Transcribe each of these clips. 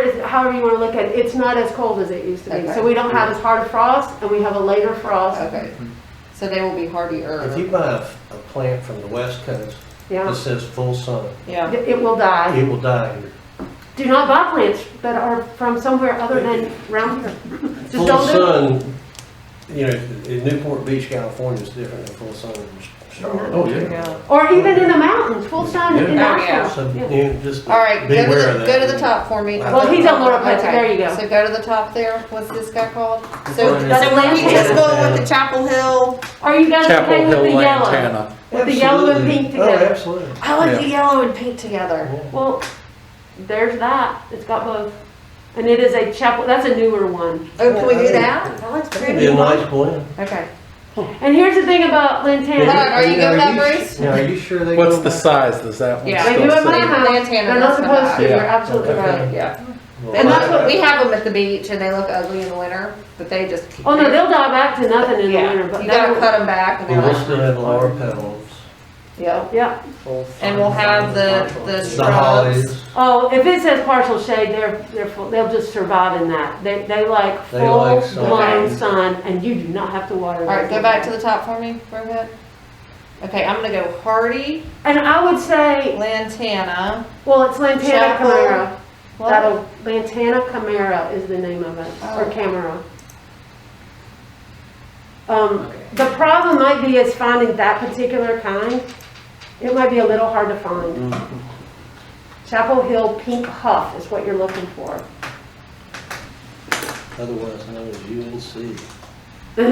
is, however you want to look at it, it's not as cold as it used to be. Okay. So we don't have as hard a frost and we have a later frost. Okay, so they will be If you hardier. buy a f- a plant from the west coast that Yeah, says full sun, Yeah, it will die. it will die here. Do not buy plants that are from somewhere other than around here. Just Full don't do it. sun, you know, in Newport Beach, California is different than full sun in Charlotte. Oh, yeah. yeah. Or even in the mountains, full sun in Yeah. So, Nashville. you Yeah. know, just All right, go beware to of the, that. go to the top for me. Well, he's on Laura Pike, Okay, there you go. So go to the top there, what's this guy called? So, Lantana. That's so we just Lantana. go with the Chapel Hill. Are you guys okay Chapel with the Hill yellow? Lantana. With the yellow and Absolutely. pink together. Oh, absolutely. I like the yellow and pink together. Yeah. Well, there's that. It's got both. And it is a chapel, that's a newer one. Oh, can we do that? That looks It'd be pretty. a nice blend. Okay. And here's the thing about Hold on, Lantana. are you good with that, Now, are you- Bruce? Now, are you sure they? What's go the back? size? Does that one Yeah. They still do it say- by hand. Lantana, They're not that's not supposed to. You're bad. absolutely Okay. right. Yeah. Well, And that's what, I- we have them at the beach and they look ugly in the winter, but they just. Oh no, they'll die back to nothing in the Yeah, winter, but you gotta they'll- cut them back and We will they're like, still have our petals, yep. yeah. And we'll have the, the the hollies. shrubs. Oh, if it says partial shade, they're, they're, full- they'll just survive in that. They, they like They like full sun. blown sun and you do not have to water them. Alright, go back to the top for me, Rohit. Okay, I'm gonna go Hardy, And I would say, Lantana. well, it's Lantana Chapel. Camara. What? That'll, Lantana Camara is the name of it, or Oh. Camara. Um, the problem might be is finding that particular kind. It might be a little hard to find. Mm-hmm. Chapel Hill Pink Huff is what you're looking for. Otherwise known as UNC. The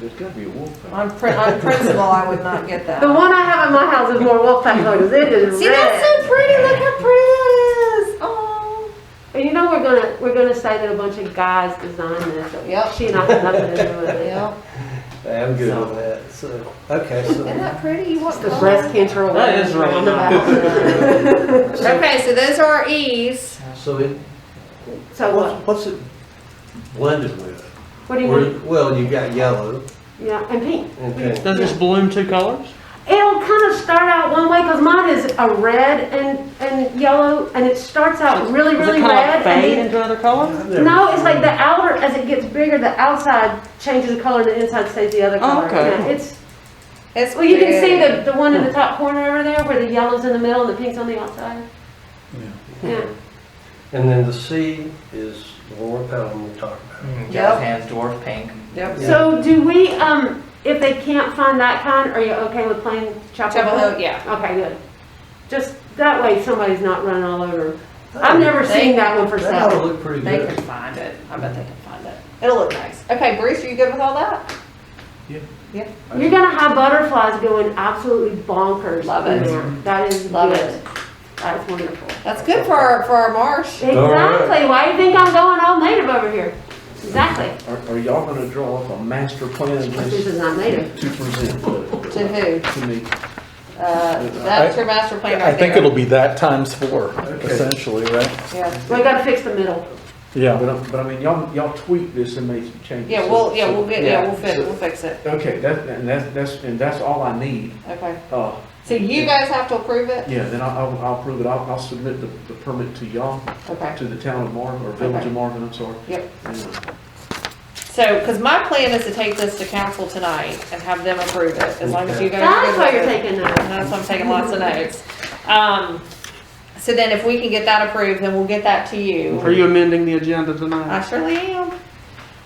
There's gotta be a wolf. pack. On prin, on principle, I would not get that. one I have in my house is more Wolfpack because it is See, that's red. so pretty, look how pretty that is. Oh. And you know, we're gonna, we're gonna say that a bunch of guys designed this. so Yep. She not had nothing to do with it. Yep, I'm good with that, so, okay, so. isn't that pretty? You want The color? breast cancer. That is right. right. Okay, so those are our E's. So it, So what, what's, what's it blended with? what do you mean? Or- Well, you've got yellow Yeah, and pink. and pink. Does this balloon two colors? It'll kind of start out one way because mine is a red and, and yellow and it starts out really, Does really it kind of like red. fade and then- into other colors? I've never- No, it's like the outer, as it gets bigger, the outside changes the color and the inside stays the other Oh, color. okay. Yeah, It's, It's well, you can see pretty. the, the one in the top corner over there where the yellow's in the middle and the pink's on the outside. Yeah. And then the C is the war pattern we talked about. Yep. Mm, hands, dwarf pink. Yep. So do we, um, if they can't find that kind, are you okay with playing Chapel Chapel Hill? Hill, yeah. Okay, good. Just, that way somebody's not running all over. I've never They- seen that one for That ought sale. to look pretty They good. can find it. I bet they can find it. It'll look nice. Okay, Bruce, are you good with all that? You're gonna have butterflies going absolutely bonkers. Love in it. there. That is Love good. it. That's wonderful. That's good for our, for our marsh. Exactly. Why do you think I'm going all native over here? Exactly. Are, are y'all gonna draw up a master plan This is not native. to present To who? to me? Uh, that's your master plan I right think there. it'll be that times four, essentially, right? Yeah, We gotta fix the middle. Yeah. But, I- but I mean, y'all, y'all tweak this and make some changes. yeah, we'll, yeah, we'll get, yeah, we'll fix, So- we'll fix it. Okay, that, and that's, that's, and that's all I need. Okay. Uh, So you guys have to approve it? yeah, then I'll- I'll, I'll prove it. I'll, I'll submit the, the permit to y'all, Okay. to the town of Marvin, or village Okay. of Marvin, I'm sorry. Yep. And, uh, So, because my plan is to take this to council tonight and have them approve it, as long as you guys are That's good why with you're it. taking that. And that's why I'm taking lots of notes. Um, so then if we can get that approved, then we'll get that to you. Are you amending the agenda tonight? I surely am. Um,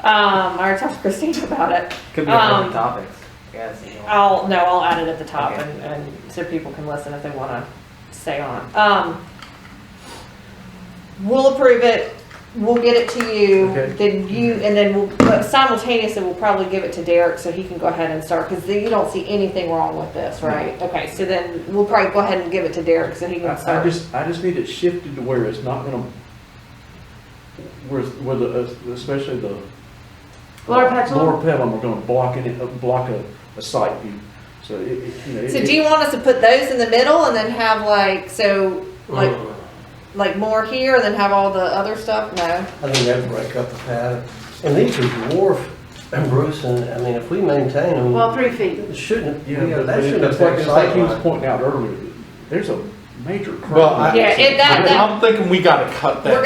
I already talked to Christine about it. Could be a couple Um, topics. Yeah, so you want- I'll, no, I'll add it at the top Okay. and, and so people can listen if they wanna stay on. Um, we'll approve it, we'll get it to you, Okay. Mm-hmm. then you, and then we'll, but simultaneously, we'll probably give it to Derek so he can go ahead and start, cause you don't see anything wrong with this, right? Okay, so then we'll probably go ahead and give it to Derek so he can I, I start. just, I just need it shifted to where it's not gonna, where, where the, uh, especially the. Laura Petzl? Lower pedal, we're gonna block it, uh, block a, a site view, so it, it, you know. it- So do you want us to put those in the middle and then have like, so, like, Uh. like more here and then have all the other stuff? No? I think that'd break up the pattern. And these are dwarf, and Bruce, and, I mean, if we maintain them. Well, three feet. It Shouldn't, Yeah, yeah, but that shouldn't it's like, affect it's like he was sightline. pointing out earlier, there's a major. Well, I- problem. Yeah, it- that- that- I'm thinking we gotta cut that. We're